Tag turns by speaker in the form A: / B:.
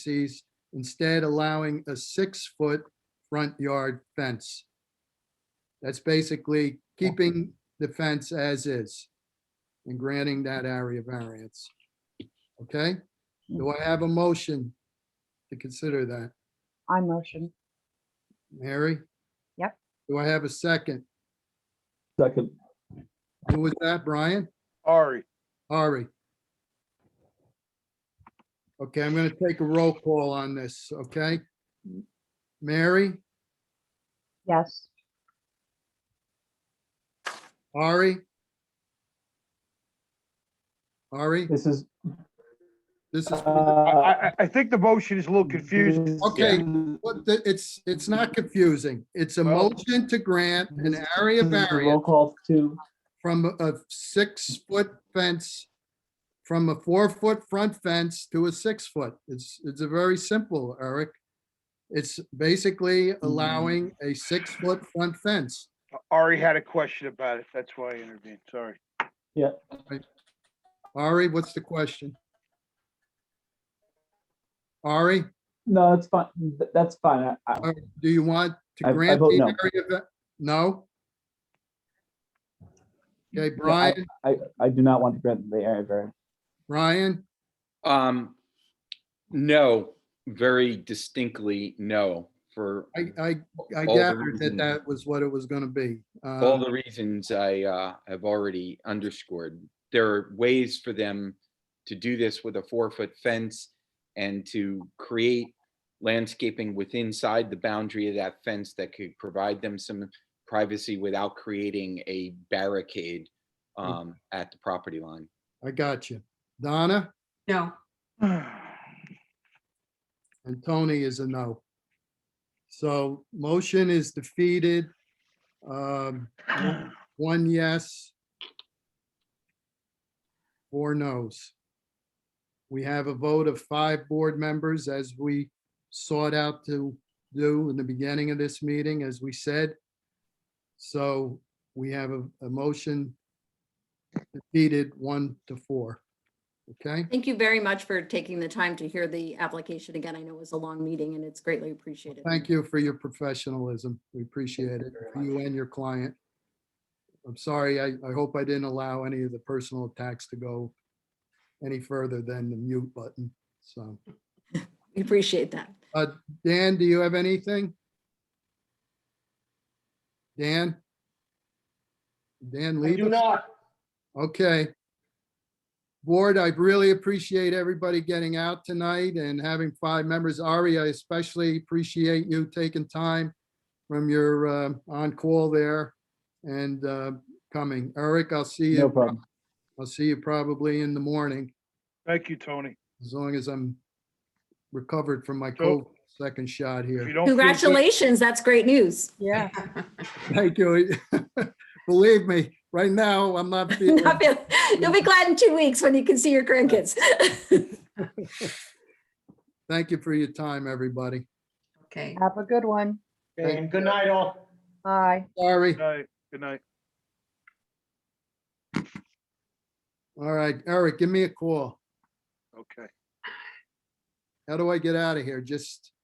A: diocese, instead allowing a six-foot front yard fence. That's basically keeping the fence as is and granting that area variance. Okay? Do I have a motion to consider that?
B: I motion.
A: Mary?
B: Yep.
A: Do I have a second?
C: Second,
A: Who was that, Brian?
D: Ari,
A: Ari? Okay, I'm gonna take a roll call on this, okay? Mary,
B: Yes.
A: Ari? Ari,
C: this is.
A: this is,
D: I,
C: Uh,
D: I, I think the motion is a little confusing.
A: Okay, what the- it's, it's not confusing. It's a
D: Well-
A: motion to grant an area
C: This is a
A: variance
C: Roll call to,
A: from a six-foot fence, from a four-foot front fence to a six-foot. It's, it's a very simple, Eric. It's basically allowing
C: Hmm.
A: a six-foot front fence.
D: Ari had a question about it. That's why I intervened. Sorry.
A: Ari, what's the question? Ari,
C: no, it's fine, Th- that's fine. I- I-
A: uh, do you want
C: I-
A: to
C: I
A: grant
C: vote no.
A: the area? va- No? Okay, Brian,
C: I, I do not want to grant the area variance.
A: Brian,
E: Um, no, very distinctly, no, for
A: I, I, I
E: All the
A: gathered that
E: reasons.
A: that was what it was gonna be.
E: all
A: Uh,
E: the reasons I, uh, have already underscored. There are ways for them to do this with a four-foot fence and to create landscaping with inside the boundary of that fence that could provide them some privacy without creating a barricade,
A: Mm.
E: um, at the property line.
A: I got you. Donna?
F: No,
A: And Tony is a no. So motion is defeated. Um, One yes. Four no's. We have a vote of five board members as we sought out to do in the beginning of this meeting, as we said. So we have a, a motion defeated one to four. Okay?
F: thank you very much for taking the time to hear the application again. I know it was a long meeting and it's greatly appreciated.
A: Thank you for your professionalism. We appreciate it, for you and your client. I'm sorry, I, I hope I didn't allow any of the personal attacks to go any further than the mute button, so.
F: We appreciate that.
A: Dan, do you have anything? Dan? Dan
G: I
A: leave?
G: do not.
A: Okay. Board, I really appreciate everybody getting out tonight and having five members. Ari, I especially appreciate you taking time from your uh, on-call there and uh, coming. Eric, I'll see
C: No
A: you,
C: problem.
A: I'll see you probably in the morning,
D: Thank you, Tony.
A: as long as I'm recovered from my
D: So-
A: COVID second shot
D: If you
A: here.
D: don't feel good-
F: Congratulations, that's great news.
B: Yeah.
A: Thank you. Believe me, right now, I'm not feeling.
F: Not feel- You'll be glad in two weeks when you can see your grandkids.
A: Thank you for your time, everybody.
F: Okay.
B: Have a good one.
G: And good night all.
B: Bye.
A: Sorry.
D: Good night. Good night.
A: All right, Eric, give me a call.
D: Okay.
A: How do I get out of here? Just